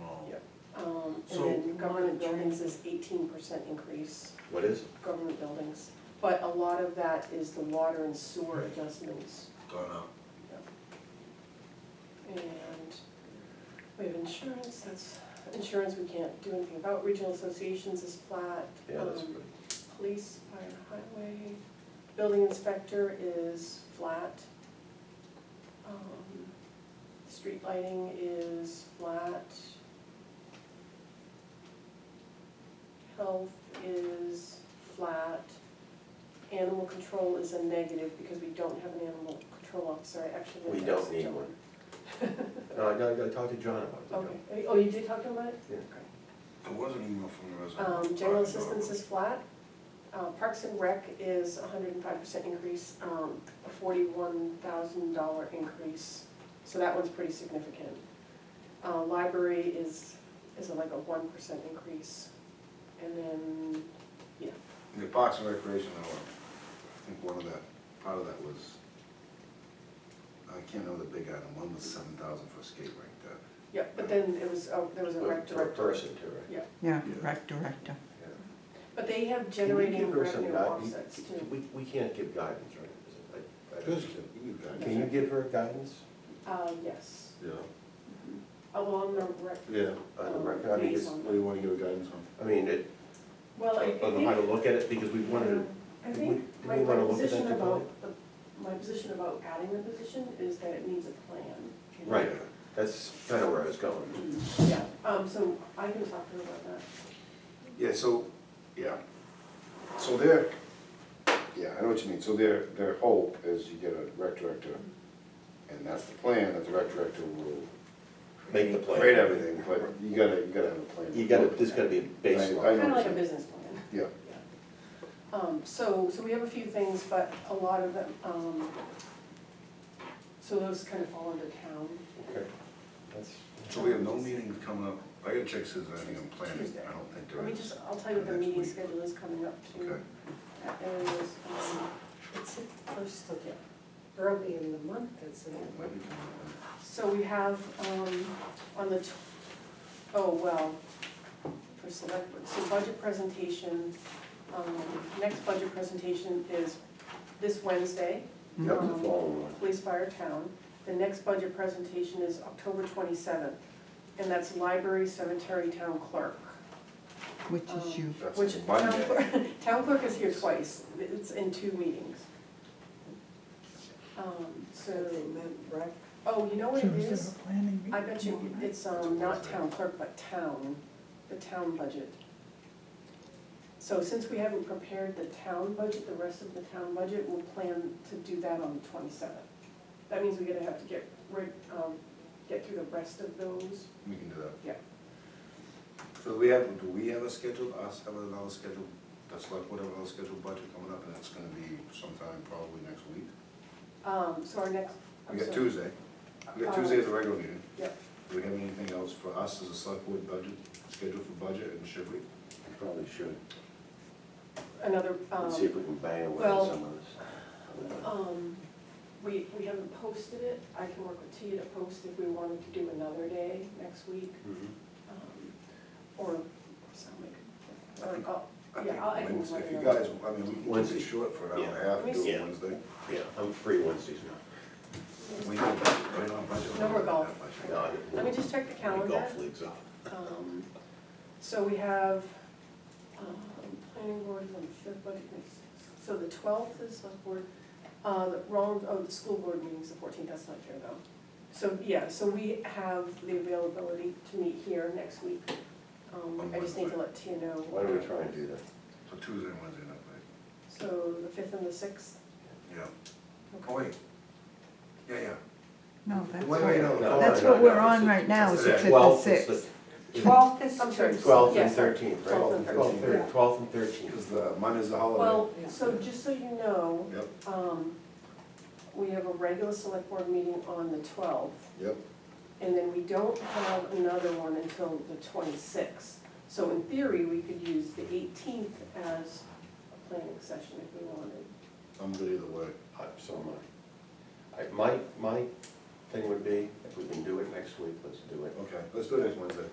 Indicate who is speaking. Speaker 1: Oh.
Speaker 2: Yep.
Speaker 3: Um, and
Speaker 1: So-
Speaker 3: then government buildings is eighteen percent increase,
Speaker 4: What is? it?
Speaker 3: government buildings. But a lot of that is the water and sewer adjustments.
Speaker 1: Gone up.
Speaker 3: And we have insurance, that's, insurance we can't do anything about, regional associations is flat.
Speaker 4: Yeah, that's
Speaker 3: Um,
Speaker 4: pretty.
Speaker 3: Police, fire, highway, building inspector is flat. Um, Street lighting is flat. Health is flat. Animal control is a negative because we don't have an animal control officer, I actually
Speaker 4: We
Speaker 3: didn't
Speaker 4: don't
Speaker 3: ask
Speaker 4: need
Speaker 3: John.
Speaker 4: one. No, I gotta, gotta talk to John about it.
Speaker 3: Okay, Are you- oh, you did talk to him about it?
Speaker 1: There was an email from the resident.
Speaker 3: Um, general assistance is flat. Uh, Parks and Rec is hundred and five percent increase, um, a forty-one thousand dollar increase, so that one's pretty significant. Uh, library is, is like a one percent increase, and then,
Speaker 1: The Parks and Recreation, I think one of that, part of that was, I can't remember the big item, one was seven thousand for a skate rink, that.
Speaker 3: yeah, but then it was, oh, there was a rec
Speaker 4: For- For a
Speaker 3: director.
Speaker 4: person too, right?
Speaker 5: Yeah,
Speaker 1: Yeah.
Speaker 5: rec director.
Speaker 3: But they have
Speaker 4: Can you
Speaker 3: generating
Speaker 4: give her some
Speaker 3: revenue
Speaker 4: guide-
Speaker 3: offsets
Speaker 4: you-
Speaker 3: too.
Speaker 4: We, we can't give guidance, right? Is it- I- I don't
Speaker 1: Good.
Speaker 4: understand.
Speaker 1: You got it.
Speaker 4: Can you give her guidance?
Speaker 3: Uh, yes,
Speaker 1: Yeah.
Speaker 3: along the rec,
Speaker 1: Yeah,
Speaker 4: On the
Speaker 3: Um,
Speaker 4: record, I mean,
Speaker 3: please.
Speaker 4: it's-
Speaker 1: what do you wanna give a guidance on?
Speaker 4: I mean, it,
Speaker 3: well, I I think.
Speaker 4: on how to look at it, because we wanted to
Speaker 3: I
Speaker 4: Do
Speaker 3: think
Speaker 4: we- do
Speaker 3: my,
Speaker 4: we
Speaker 3: my
Speaker 4: wanna look at
Speaker 3: position
Speaker 4: that
Speaker 3: about, the- my position about adding the position is that it needs a plan. you know?
Speaker 4: Right, that's kind of where I was going.
Speaker 3: Yeah, um, so I can talk to her about that.
Speaker 1: Yeah, so, yeah, so their, yeah, I know what you mean, so their, their hope is you get a rec director, and that's the plan, that the rec director will
Speaker 4: Make the plan.
Speaker 1: create everything, but you gotta, you gotta have a plan.
Speaker 4: You gotta, there's gotta be a
Speaker 1: I
Speaker 4: baseline.
Speaker 1: know.
Speaker 3: Kind of like a
Speaker 1: what you're
Speaker 3: business plan.
Speaker 1: Yeah.
Speaker 3: Um, so, so we have a few things, but a lot of them, um, so those kind of fall under town.
Speaker 4: Okay. That's-
Speaker 1: So we have no meetings coming up, I gotta check since I think I'm planning,
Speaker 3: Tuesday.
Speaker 1: I don't think
Speaker 3: Let
Speaker 1: there
Speaker 3: me
Speaker 1: is.
Speaker 3: just, I'll tell you the
Speaker 1: Next
Speaker 3: meeting
Speaker 1: week.
Speaker 3: schedule is coming up too.
Speaker 1: Okay.
Speaker 3: That is, um,
Speaker 6: It's the first of early in the month, isn't
Speaker 1: Oh,
Speaker 6: it?
Speaker 1: maybe coming up.
Speaker 3: So we have, um, on the, tw- oh, well, for select, so budget presentation, um, next budget presentation is this Wednesday,
Speaker 4: That was the following one.
Speaker 3: police, fire, town. The next budget presentation is October twenty-seventh, and that's library, cemetery, town clerk.
Speaker 5: Which is you.
Speaker 3: Which,
Speaker 1: That's
Speaker 3: town
Speaker 1: Monday.
Speaker 3: clerk, town clerk is here twice, it's in two meetings. Um, so,
Speaker 6: So they meant rec,
Speaker 3: oh, you know what it is?
Speaker 5: planning
Speaker 3: I bet you it's, um, not town clerk, but town, the town budget. So since we haven't prepared the town budget, the rest of the town budget, we'll plan to do that on the twenty-seventh. That means we're gonna have to get, rid- um, get through the rest of those.
Speaker 1: We can do that.
Speaker 3: Yeah.
Speaker 1: So we have, do we have a scheduled, us have another scheduled, that's like whatever another scheduled budget coming up, and that's gonna be sometime probably next week?
Speaker 3: Um, so our next, I'm
Speaker 1: We got
Speaker 3: sorry.
Speaker 1: Tuesday, we got
Speaker 3: Uh,
Speaker 1: Tuesday as a regular meeting.
Speaker 3: Yep.
Speaker 1: Do we have anything else for us as a select board budget, scheduled for budget, and should we?
Speaker 4: We Probably should,
Speaker 3: Another,
Speaker 4: Let's see if
Speaker 3: um,
Speaker 4: we can bang away
Speaker 3: well,
Speaker 4: some of this.
Speaker 3: um, we, we haven't posted it, I can work with Tia to post if we wanted to do another day next week.
Speaker 4: Mhm.
Speaker 3: Um, Or, so make,
Speaker 1: I
Speaker 3: or,
Speaker 1: think-
Speaker 3: oh,
Speaker 1: I
Speaker 3: yeah, I'll, I
Speaker 1: think
Speaker 3: can.
Speaker 1: Wednesday,
Speaker 3: let
Speaker 1: If
Speaker 3: you
Speaker 1: you
Speaker 3: know.
Speaker 1: guys, I mean, we can keep
Speaker 4: Wednesday.
Speaker 1: it short for an hour and a
Speaker 4: Yeah.
Speaker 1: half, do it
Speaker 4: Yeah.
Speaker 1: Wednesday.
Speaker 4: Yeah, I'm free Wednesdays now.
Speaker 1: We can, right on budget.
Speaker 3: No more golf.
Speaker 1: That budget.
Speaker 4: No, I-
Speaker 3: Let me just check the
Speaker 4: my
Speaker 3: calendar.
Speaker 4: Golf league's off.
Speaker 3: Um, So we have, um, planning board, I'm sure, budget, committee. so the twelfth is select board, uh, the wrong, oh, the school board meeting's the fourteenth, that's not here though. So, yeah, so we have the availability to meet here next week. Um, I just need to let Tia know.
Speaker 4: Why don't we try and do that?
Speaker 1: So Tuesday and Wednesday, not late.
Speaker 3: So the fifth and the sixth,
Speaker 1: Yeah. Oh, wait. Yeah, yeah.
Speaker 5: No, that's
Speaker 1: Wait, wait, no,
Speaker 5: what,
Speaker 1: no,
Speaker 5: that's
Speaker 1: no,
Speaker 5: what
Speaker 1: no,
Speaker 5: we're
Speaker 1: no,
Speaker 5: on
Speaker 1: it's-
Speaker 5: right now, is
Speaker 1: it's
Speaker 5: the
Speaker 1: the
Speaker 5: fifth and
Speaker 4: 12th is
Speaker 5: sixth.
Speaker 4: the-
Speaker 6: Twelfth is
Speaker 3: I'm sorry,
Speaker 6: Tuesday.
Speaker 4: Twelfth and
Speaker 3: Yes, sorry.
Speaker 4: thirteenth, right?
Speaker 3: 12th and
Speaker 1: 13th.
Speaker 4: 12th
Speaker 6: Yeah.
Speaker 4: Twelfth and thirteenth.
Speaker 1: Because the Monday's the holiday.
Speaker 3: Well, so just so you know,
Speaker 1: Yep,
Speaker 3: um, we have a regular select board meeting on the twelfth,
Speaker 1: yep.
Speaker 3: and then we don't have another one until the twenty-sixth. So in theory, we could use the eighteenth as a planning session if we wanted.
Speaker 1: I'm good either way.
Speaker 4: Uh, So my, I, my, my thing would be, if we can do it next week, let's do it.
Speaker 1: Okay, let's do it next Wednesday.